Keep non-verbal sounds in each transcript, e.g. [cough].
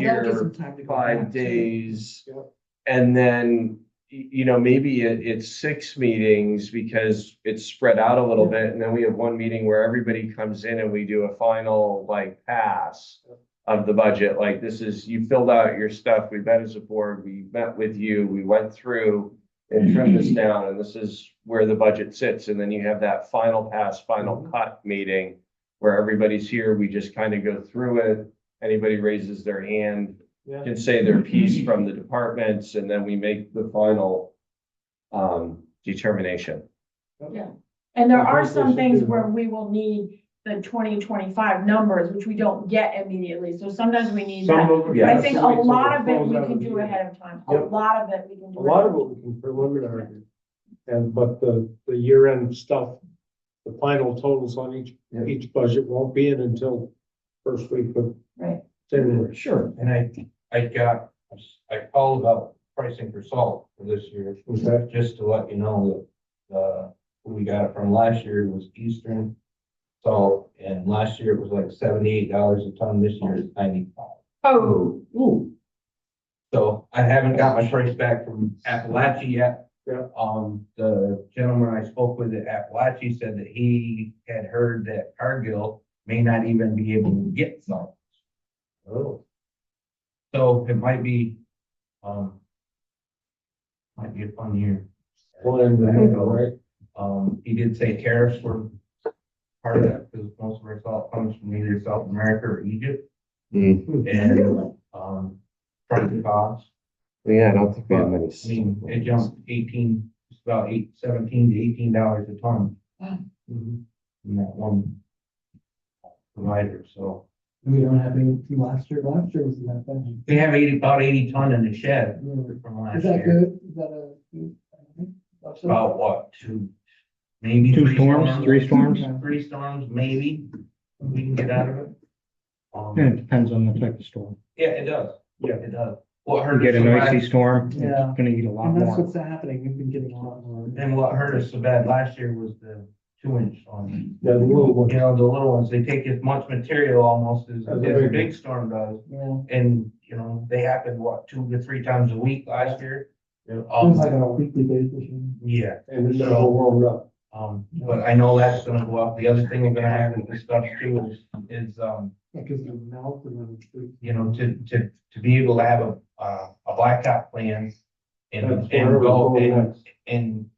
that'll give here some time to go back, five too. days. Yep. And then, y- you know, maybe it, it's six meetings because it's spread out a little bit. And then we have one meeting where everybody comes in and we do a final like pass Yep. of the budget. Like this is, you filled out your stuff. We met as a board. We met with you. We went through and trimmed this down and this is where the budget sits. And then you have that final pass, final cut meeting where everybody's here. We just kind of go through it. Anybody raises their hand, Yeah. can say their piece from the departments, and then we make the final um, determination. Yeah. And there I are think some we should things do where that. we will need the twenty twenty-five numbers, which we don't get immediately, so sometimes we need Some that. of them- Yeah. I think a some weeks will lot of it close we out can the do year. ahead of time, a Yep. lot of it we can do. A lot of ahead- it we can preliminary, do. and, but the, the year-end stuff, the final totals on each, Yeah. each budget won't be in until first week of Right, January. Sure, and I, I got, I called up pricing for salt for this year, Okay, just to let you know that, uh, we got it from last year was Eastern salt, and last year it was like seventy-eight dollars a ton, this year it's ninety-five. oh, So I haven't got my price back from Appalachia yet. Yeah. Um, the gentleman I spoke with at Appalachia said that he had heard that Cargill may not even be able to get salt. oh, So it might be, um, might be a fun year. well, and, then, all right, Um, he did say tariffs were part of that, because most of our salt comes from either South America or Egypt, Mm-hmm. really? and, um, price of cost. Yeah, I don't think we have many. I mean, it jumped eighteen, it's about eight, seventeen to eighteen dollars a ton Mhm. from that one provider, so. We don't have any from last year, last year was not that They have eighty, about eighty ton in the shed bad. from Is last that year. good? Is that a? good- It's About what, two, maybe? Two three storms, three storms? Three storms, maybe, we can get out of it. Yeah, Um, it depends on the type of storm. yeah, it does. Yeah. It does. What You hurt get us an icy so storm, Yeah. it's gonna eat a lot And that's more. what's happening. We've been getting a lot more. bad, and what hurt us so bad last year was the two inch storm. yeah, the little one, You know, the little ones, they take as much material almost as, As a as a big- big storm does. Yeah. And, you know, they happened, what, two to three times a week last year? Yeah. Seems like on Um, a weekly basis. you know. yeah, and then the whole roll up. um, but I know that's gonna go up. The other thing we're gonna have to discuss too is, is, um, Like, cause your mouth and then. it's- you know, to, to, to be able to have a, uh, a blacktop plan and, That's where and we're go going and, next. and,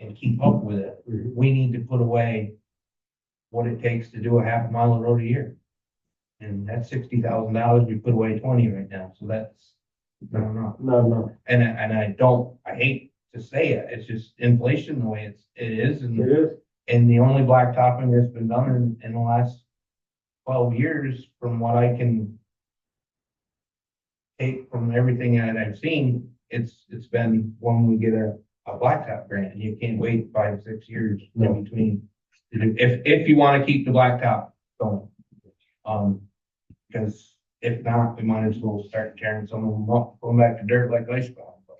and keep up with it. Mhm. We need to put away what it takes to do a half mile of road a year. And that's sixty thousand dollars. We put away twenty right now, so that's, I don't know. No, no, And, I- and I don't, I hate to say it, it's just inflation the way it's, it is and. it is, And the only blacktopping that's been done in, in the last twelve years, from what I can take from everything that I've seen, it's, it's been when we get a, a blacktop grant, and you can't wait five, six years No. in between. If, if you wanna keep the blacktop going. Um, cause if not, we might as well start tearing some of them up, going back to dirt like ice cream. but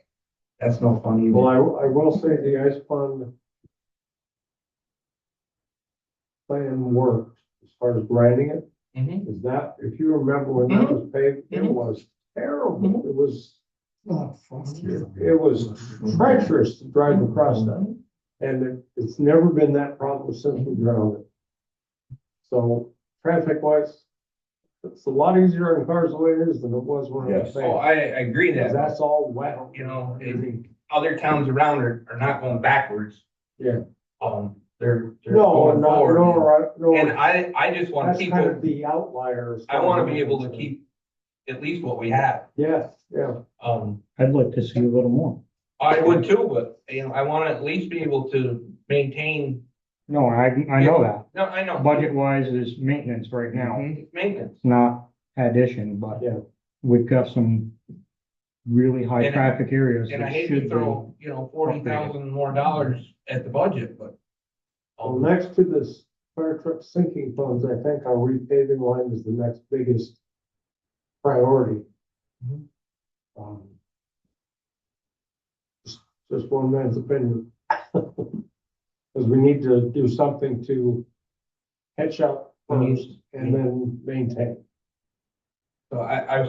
That's no fun either. well, I, I will say the ice fund plan worked as far as grinding it, Mhm. is that, if you remember when that Mm-hmm. was paved, it Mhm. was terrible, it was Oh, frosty. It was treacherous to drive across that, and it- it's never been that problem since we grounded. it. So traffic wise, it's a lot easier on cars the way it is than it was when I was Yes. Oh, saying. I, I agree that. That's all wet. You know, it- other towns around are, are not going backwards. Yeah. Um, they're, they're No, going no, no, forward. right, And no, I, I just want that's to keep, kind of what- the outliers. I want to be able to keep at least what we have. Yes, yeah, Um, I'd like to see a little more. I would too, but, you know, I want to at least be able to maintain, No, I, I know that. no, I know. Budget wise is maintenance right now, Mhm, Maintenance. It's not addition, but Yeah. we've got some really high And- traffic areas And I that hate should to be. throw, you know, forty thousand more dollars at the budget, but. well, Oh, next to this fire truck sinking funds, I think our repaving line is the next biggest priority. Mhm. Um, just- Just one man's opinion. [laughs] Because we need to do something to catch up We need- first and then maintain. So I, I